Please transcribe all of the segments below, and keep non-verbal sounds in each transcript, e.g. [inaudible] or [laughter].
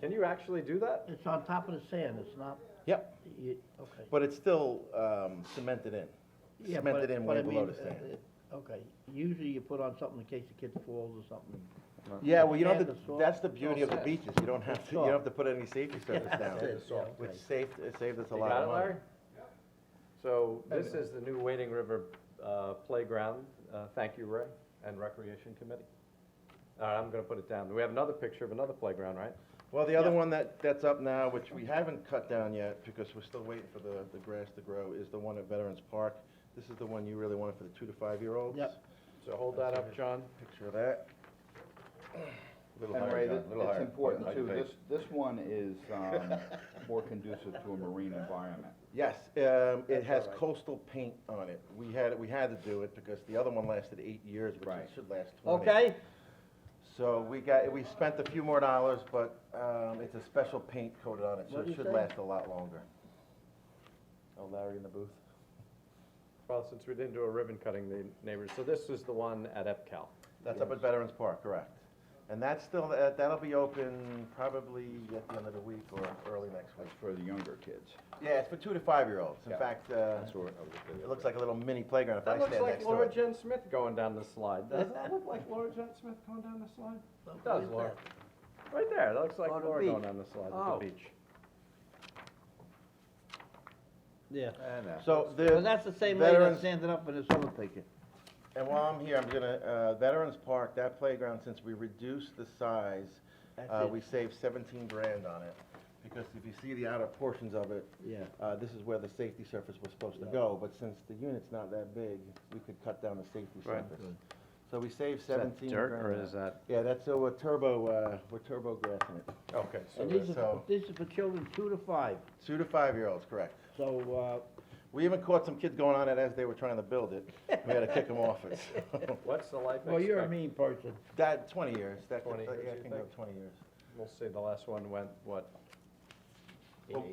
Can you actually do that? It's on top of the sand, it's not, Yep, you, okay. but it's still um, cemented in. Yeah, but- Cemented in but way I mean, below the sand. uh, uh, Okay, usually you put on something in case the kid falls or something. Yeah, well, you don't sand have to, is soft. that's the beauty of the soft. beaches, you don't have to, you soft. don't have to put any safety surface down, That's it, yeah, which okay. saved, it saved us a You lot got of it, money. Larry? So this is the new Wading River uh, Playground. Uh, Thank you, Ray, and Recreation Committee. All right, I'm gonna put it down. We have another picture of another playground, right? Well, the other one that, that's up now, which we haven't cut down yet, because we're still waiting for the, the grass to grow, is the one at Veterans Park. This is the one you really wanted for the two to five-year-olds. Yep. So hold that up, John. Picture of [clears throat] that. Little And higher, Ray, John, thi- little it's higher. important Hide too, your face. this, this one is, um, more conducive to a marine environment. Yes, um, it has coastal paint on it. We had, we had to do it because the other one lasted eight years, which it Right. should last twenty. Okay, So we got, we spent a few more dollars, but, um, it's a special paint coated on it, so What'd it you should say? last a lot longer. Oh, Larry in the booth? Well, since we didn't do a ribbon cutting, the neighbors, so this is the one at EPCAL. That's up at Veterans Park, correct. And that's still, that- that'll be open probably at the end of the week or early next week. That's for the younger kids. Yeah, it's for two to five-year-olds. In Yeah. fact, uh, That's what I was thinking. it looks like a little mini playground if I That looks stand like next to Laura it. Jen Smith going down the slide. Doesn't that look like Laura Jen Smith going down the slide? It does, Laura. Right there, that looks like On the Laura beach. going down the slide at Oh. the beach. yeah. So the. Well, that's the same lady that Veterans- standing up in the summer picture. And while I'm here, I'm gonna, uh, Veterans Park, that playground, since we reduced the size, uh, That's we it, saved seventeen grand on it. Because if you see the outer portions of it, yeah. uh, this is where the safety surface was supposed to go, but since the unit's not that big, we could cut down the safety Right. surface. So we saved seventeen grand. dirt or is that? Yeah, that's, uh, we're turbo, uh, we're turbo grassing it. Okay, so And these uh, are, so- this is for children two to five, Two to five-year-olds, correct. so, uh, We even caught some kids going on it as they were trying to build it. We had to kick them off it. [laughs] so. what's the life uh, well, you're a expect- mean person. That, twenty years, that, could- uh, 20 years, yeah, you it can go think? twenty years. We'll see, the last one went, what, Well,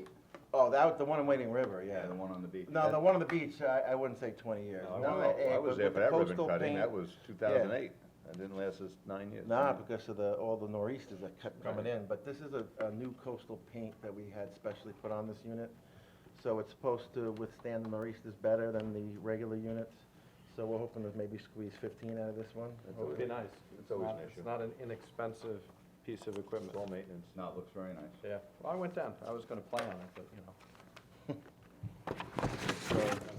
Oh, that, was the one in Wading River, Yeah, yeah. the one on the beach. No, the one on the beach, I, I wouldn't say twenty years. No, I No, Well, eh, I but was there with for the that ribbon coastal cutting, paint- that was two thousand eight, that didn't last us nine years. Nah, because of the, all the nor'easters that kept coming in, but this is a, a new coastal paint that we had specially put on this unit. So it's supposed to withstand the nor'easters better than the regular units, so we're hoping to maybe squeeze fifteen out of this one. It would be nice. It's always an not- issue. It's not an inexpensive piece of equipment. Full maintenance. No, it looks very nice. Yeah, well, I went down, I was gonna play on it, but, you know.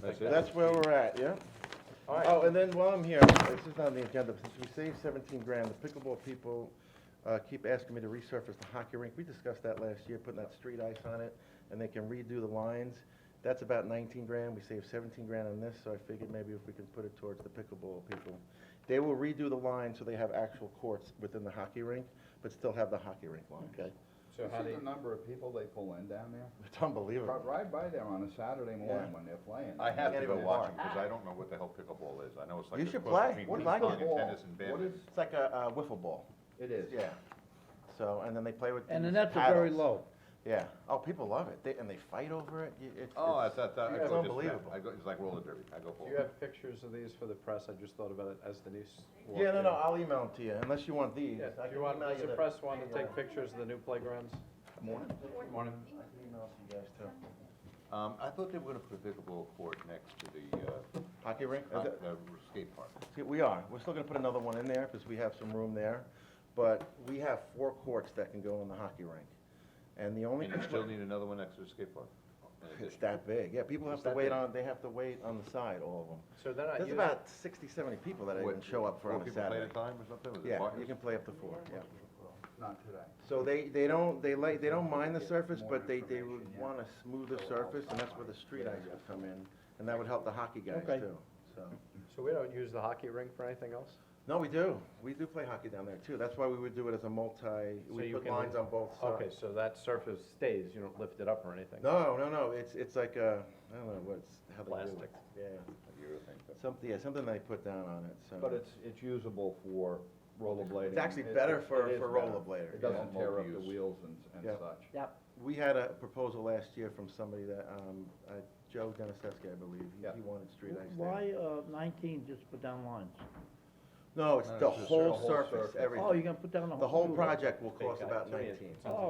That's it? That's where we're at, yeah? All right. Oh, and then while I'm here, this is not on the agenda, but since we saved seventeen grand, the pickleball people, uh, keep asking me to resurface the hockey rink. We discussed that last year, putting that street ice on it, and they can redo the lines. That's about nineteen grand. We saved seventeen grand on this, so I figured maybe if we can put it towards the pickleball people. They will redo the line so they have actual courts within the hockey rink, but still have the hockey rink line. Okay. So how do See you, the number of people they pull in down there? It's unbelievable. Ride by there on a Saturday Yeah. morning when they're playing. I have Can't to go even watch walk. because I don't know what the hell pickleball is, I know it's like. You the should cross play. between What ping do you like pong it? and Tennis and What badminton. is, It's like a, uh, wiffle ball, it is. yeah. So, and then they play with. And the these nets are very paddles. low. Yeah. Oh, people love it. They, and they fight over it. You- It's, Oh, I it's- thought, that- I it's go just, unbelievable. I go, it's like roller derby, I go for do it. you have pictures of these for the press? I just thought about it as Denise walked yeah, no, in. no. I'll email them to you unless you want these. Yeah, do I can you want, email does the the- press want to take pictures of the new playgrounds? Morning. Morning. I can email it to you guys too. Um, I thought they were gonna put a pickleball court next to the, Hockey rink. uh, Uh, hot- th- uh, skate park. see, we are. We're still gonna put another one in there because we have some room there, but we have four courts that can go on the hockey rink, and the only. And you still need another one next to the skate park? in It's addition. that big. Yeah, people have It's to that wait big. Uh, on. They have to wait on the side. All of them. So they're not There's using, about 60, 70 people that What, even show up for four on a people play at Saturday. a time or something? Was it Yeah, you partners? can play up to four. Yeah. Not today. So they, they don't, they like, they don't mind the surface, more but they, they information, would yeah. want a smoother surface, and that's where the street ice would come in, and that would help the hockey guys Okay. too, so. so we don't use the hockey rink for anything else? No, we do, we do play hockey down there too, that's why we would do it as a multi, So we you put can- lines on both Okay, sides. so that surface stays, you don't lift it up or anything? No, no, no, it's, it's like a, I don't know what's, how they do it. Plastic. Yeah, You would think that. something, yeah, something they put down on it, so. But it's, it's usable for rollerblading. It's actually It- better it- for- it is for better. rollerblader, It yeah. doesn't tear up the Multi-use. wheels and, and Yeah. such. Yep. We had a proposal last year from somebody that, um, uh, Joe Deniseski, I believe, he, Yeah. he wanted street ice there. Why, uh, nineteen, just put down lines? No, it's No, the it's just whole the whole surface, surface. everything. Oh, you're gonna put down the whole. The whole roof. project will Big cost guy, about too, yeah. nineteen. Oh,